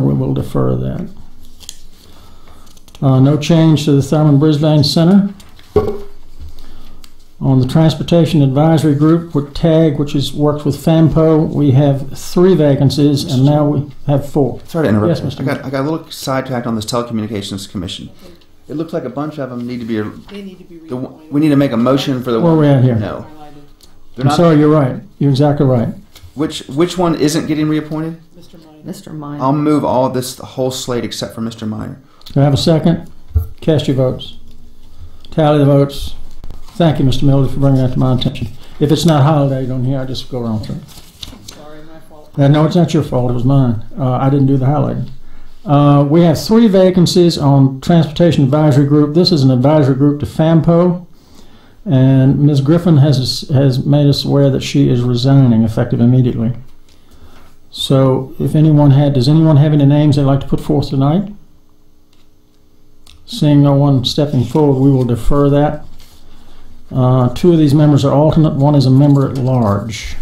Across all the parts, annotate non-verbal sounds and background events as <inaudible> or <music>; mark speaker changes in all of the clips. Speaker 1: we'll defer that. Uh, no change to the Thurman Brisbane Center. On the Transportation Advisory Group, with TAG, which has worked with FAMPO, we have three vacancies, and now we have four.
Speaker 2: Sorry to interrupt.
Speaker 1: Yes, Mr.
Speaker 2: I got, I got a little sidetracked on this telecommunications commission. It looks like a bunch of them need to be.
Speaker 3: They need to be
Speaker 2: The, one- we need to make a motion for the
Speaker 1: Where are
Speaker 2: one.
Speaker 1: we at here?
Speaker 2: No, they're
Speaker 1: I'm
Speaker 2: not.
Speaker 1: sorry, you're right. You're exactly right.
Speaker 2: Which which one isn't getting reappointed?
Speaker 3: Mr. Minor.
Speaker 4: Mr. Minor.
Speaker 2: I'll move all this the whole slate except for Mr. Minor.
Speaker 1: Do I have a second? Cast your votes. Tally the votes. Thank you, Mr. Miller, for bringing that to my attention. If it's not holiday on here, I just go around through. it.
Speaker 3: Sorry, my fault.
Speaker 1: Uh, No, it's not your fault, it was mine. Uh, I didn't do the highlighting. Uh, we have three vacancies on Transportation Advisory Group. This is an advisory group to FAMPO. And Ms. Griffin has, has made us aware that she is resigning effective immediately. So if anyone had, does anyone have any names they'd like to put forth tonight? Seeing no one stepping forward, we will defer that. Uh, two of these members are alternate, one is a member at large.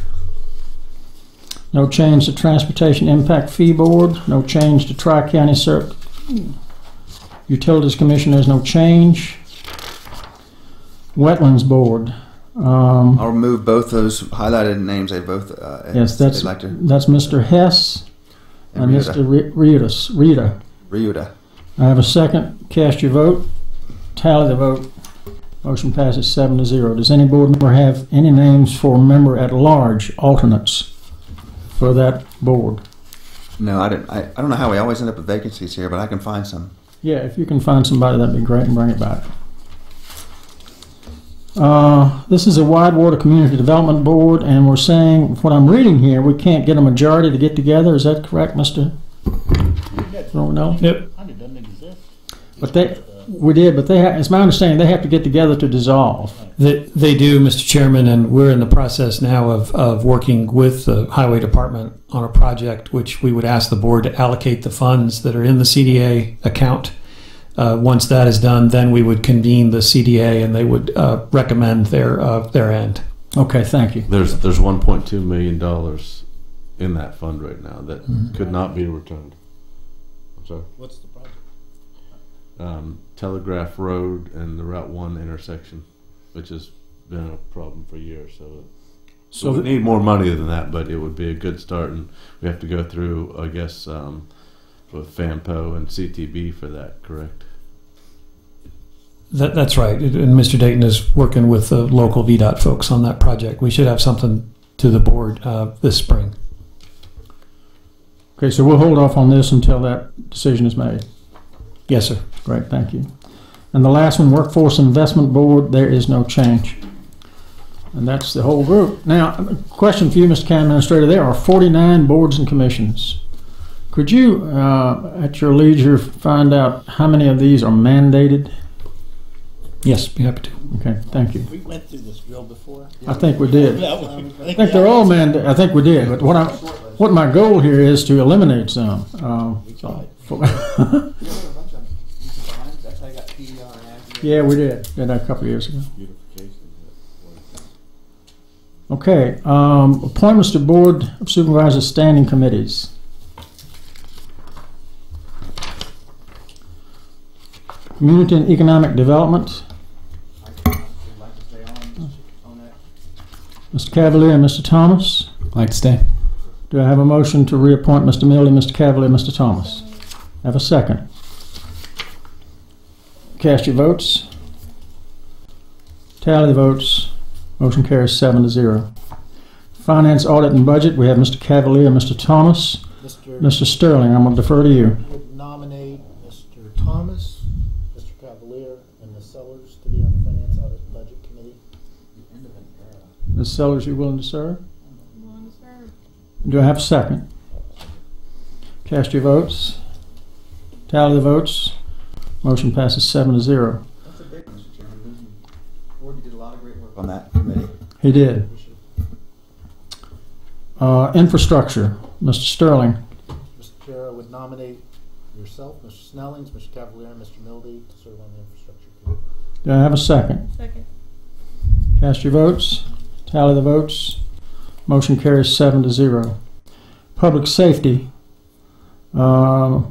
Speaker 1: No change to Transportation Impact Fee Board, no change to Tri-County Cir- Utilities Commission, there's no change. Wetlands Board, um,
Speaker 2: I'll remove both those highlighted names. They both. Uh,
Speaker 1: Yes, that's-
Speaker 2: they'd like to.
Speaker 1: that's Mr. Hess and
Speaker 2: Ryuta.
Speaker 1: Mr. Uh, Re- Ritas, Rita.
Speaker 2: Ryuta.
Speaker 1: I have a second, cast your vote, tally the vote. Motion passes seven to zero. Does any board member have any names for member at large alternates for that board?
Speaker 2: No, I didn't. I, I don't know how we always end up with vacancies here, but I can find some.
Speaker 1: Yeah, if you can find somebody, that'd be great and bring it back. Uh, this is a Wide Water Community Development Board, and we're saying, what I'm reading here, we can't get a majority to get together. Is that correct, Mr. Ronell?
Speaker 5: Yep. doesn't exist.
Speaker 1: But they, we did, but they, ha- it's my understanding, they have to get together to dissolve.
Speaker 5: They, they do, Mr. Chairman, and we're in the process now of, of working with the Highway Department on a project which we would ask the board to allocate the funds that are in the CDA account. Uh, once that is done, then we would convene the CDA and they would uh, recommend their uh, their end.
Speaker 1: Okay, thank you.
Speaker 6: There's there's 1.2 million dollars in that fund right now that
Speaker 1: Mm-hmm.
Speaker 6: could not be returned. I'm sorry. What's the project? Um, Telegraph Road and the Route One intersection, which has been a problem for years. So, so
Speaker 1: So
Speaker 6: we
Speaker 1: th-
Speaker 6: need more money than that, but it would be a good start, and we have to go through, I guess, um, with FAMPO and CTB for that. Correct.
Speaker 5: That, that's right. And Mr. Dayton is working with the local VDOT folks on that project. We should have something to the board uh, this spring.
Speaker 1: Okay, so we'll hold off on this until that decision is made.
Speaker 5: Yes, sir.
Speaker 1: Great, thank you. And the last one, Workforce Investment Board, there is no change. And that's the whole group. Now, a question for you, Mr. County Administrator, there are 49 boards and commissions. Could you, uh, at your leisure, find out how many of these are mandated?
Speaker 5: Yes, be happy to.
Speaker 1: Okay, thank you.
Speaker 7: We went through this drill before.
Speaker 1: I think we did.
Speaker 7: Yeah, we-
Speaker 1: I think they're all mandated, I think we did, but what I, what my goal here is to eliminate some. um, <laughs> for- Yeah, we did, did that a couple of years ago. Okay, um, appointments to Board of Supervisors Standing Committees. Community and Economic Development, Mr. Cavalier and Mr. Thomas.
Speaker 8: Like to stay.
Speaker 1: Do I have a motion to reappoint Mr. Millie, Mr. Cavalier, Mr. Thomas? Have a second. Cast your votes. Tally the votes. Motion carries seven to zero. Finance, Audit, and Budget, we have Mr. Cavalier, and Mr. Thomas.
Speaker 7: Mr.
Speaker 1: Mr. Sterling, I'm going to defer to you.
Speaker 7: would nominate Mr. Thomas, Mr. Cavalier, and Ms. Sellers to be on the Finance Audit and Budget Committee.
Speaker 1: Ms. Sellers, you willing to serve? Do I have a second? Cast your votes. Tally the votes. Motion passes seven to zero.
Speaker 2: That's a big one, Mr. Chairman. Board, you did a lot of great work on that committee.
Speaker 1: He did. Uh, infrastructure, Mr. Sterling.
Speaker 7: Mr. Chair, I would nominate yourself, Mr. Snellings, Mr. Cavalier, and Mr. Mildy to serve on the Infrastructure Committee.
Speaker 1: Do I have a second?
Speaker 3: Second.
Speaker 1: Cast your votes. Tally the votes. Motion carries seven to zero. Public safety. Um,